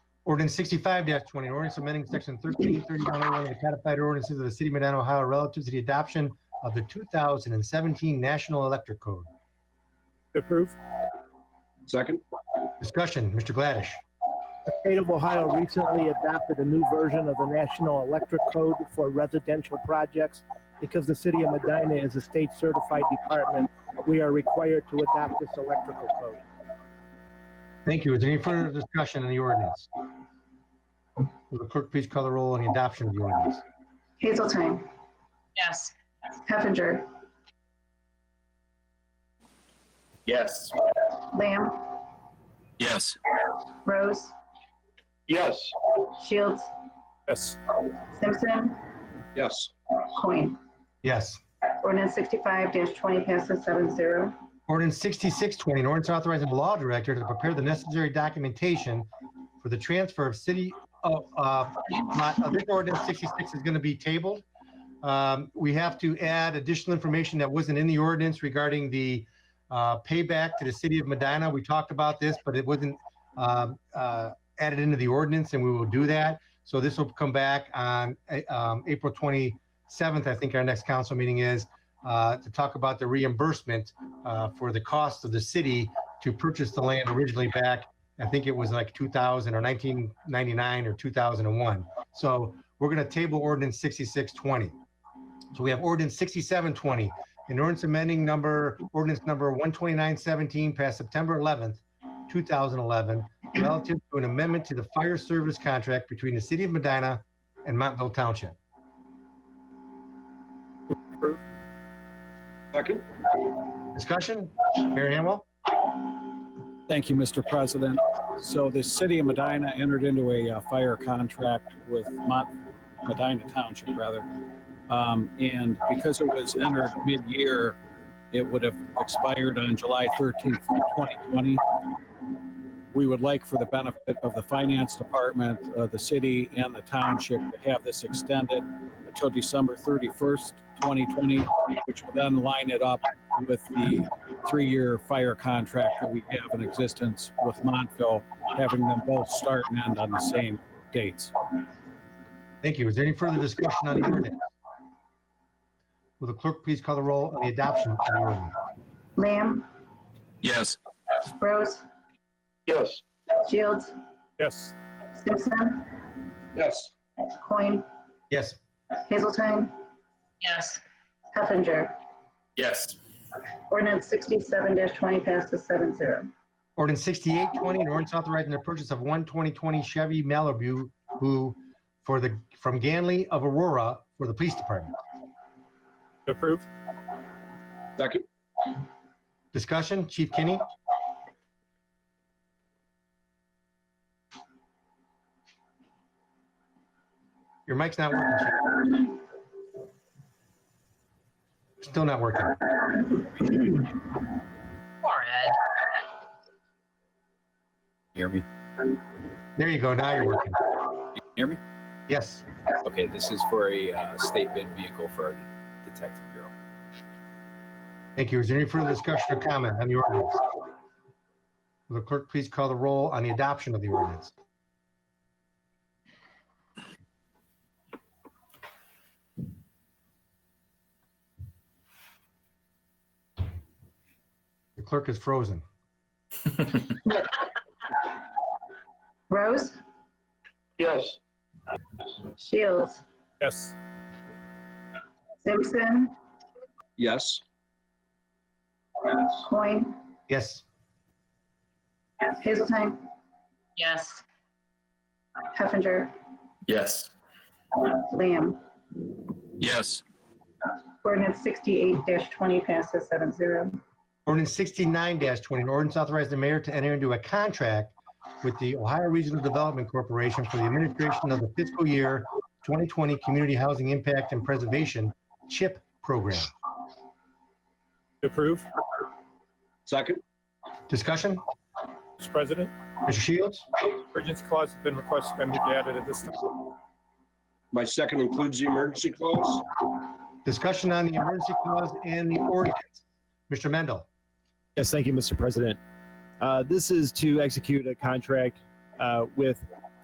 Ordinance sixty-five twenty, an ordinance amending section thirteen thirty-one oh one of the codified ordinances of the city of Medina, Ohio relative to the adoption of the two thousand and seventeen National Electric Code. Approve. Second? Discussion, Mr. Gladish. The state of Ohio recently adopted a new version of the National Electric Code for residential projects. Because the city of Medina is a state certified department, we are required to adopt this electrical code. Thank you. Is there any further discussion on the ordinance? Will the clerk please call the roll on the adoption of the ordinance? Hazelton, yes, Heffinger, Yes. Lamb, yes, Rose, Yes. Shields, Yes. Simpson, Yes. Coin. Yes. Ordinance sixty-five twenty passes seven zero. Ordinance sixty-six twenty, an ordinance authorizing the law director to prepare the necessary documentation for the transfer of city, of, uh, lot- uh, this ordinance sixty-six is gonna be tabled. Um, we have to add additional information that wasn't in the ordinance regarding the, uh, payback to the city of Medina. We talked about this, but it wasn't, um, uh, added into the ordinance and we will do that. So this will come back on, uh, um, April twenty-seventh, I think our next council meeting is, uh, to talk about the reimbursement uh, for the cost of the city to purchase the land originally back, I think it was like 2000 or 1999 or 2001. So we're going to table ordinance 6620. So we have ordinance 6720, an ordinance amending number, ordinance number 12917 passed September 11th, 2011, relative to an amendment to the fire service contract between the city of Medina and Montville Township. Second? Discussion? Mayor Hamwell? Thank you, Mr. President. So the city of Medina entered into a uh, fire contract with Mont, Medina Township rather. Um, and because it was entered mid-year, it would have expired on July 13th, 2020. We would like for the benefit of the finance department, uh, the city and the township to have this extended until December 31st, 2020, which would then line it up with the three-year fire contract that we have in existence with Montville, having them both start and end on the same dates. Thank you. Is there any further discussion on the ordinance? Will the clerk please call the roll on the adoption of the ordinance? Lamb, yes, Rose, Yes. Shields, Yes. Simpson, Yes. Coin, Yes. Hazelton, yes, Heffinger. Yes. Ordinance sixty-seven twenty passes seven zero. Ordinance 6820, an ordinance authorizing the purchase of one 2020 Chevy Malibu who for the, from Ganley of Aurora for the police department. Approve. Second? Discussion, Chief Kinney? Your mic's not working. Chief. Still not working. poor Ed. Hear me? There you go. Now you're working. Hear me? Yes. Okay, this is for a uh, state bid vehicle for our detective bureau. Thank you. Is there any further discussion or comment on the ordinance? Will the clerk please call the roll on the adoption of the ordinance? The clerk is frozen. Rose, Yes. Shields, Yes. Simpson, Yes. Coin, Yes. Hazelton, yes, Heffinger, Uh, yes, Lamb. yes, Ordinance sixty-eight twenty passes seven zero. Ordinance sixty-nine twenty, an ordinance authorizing the mayor to enter into a contract with the Ohio Regional Development Corporation for the administration of the fiscal year twenty twenty Community Housing Impact and Preservation CHIP program. Approve. Second? Discussion? Mr. President, Mr. Shields? emergency clause has been requested and be added at this time. My second includes the emergency clause? Discussion on the emergency clause and the ordinance. Mr. Mendel? Yes, thank you, Mr. President. Uh, This is to execute a contract uh, with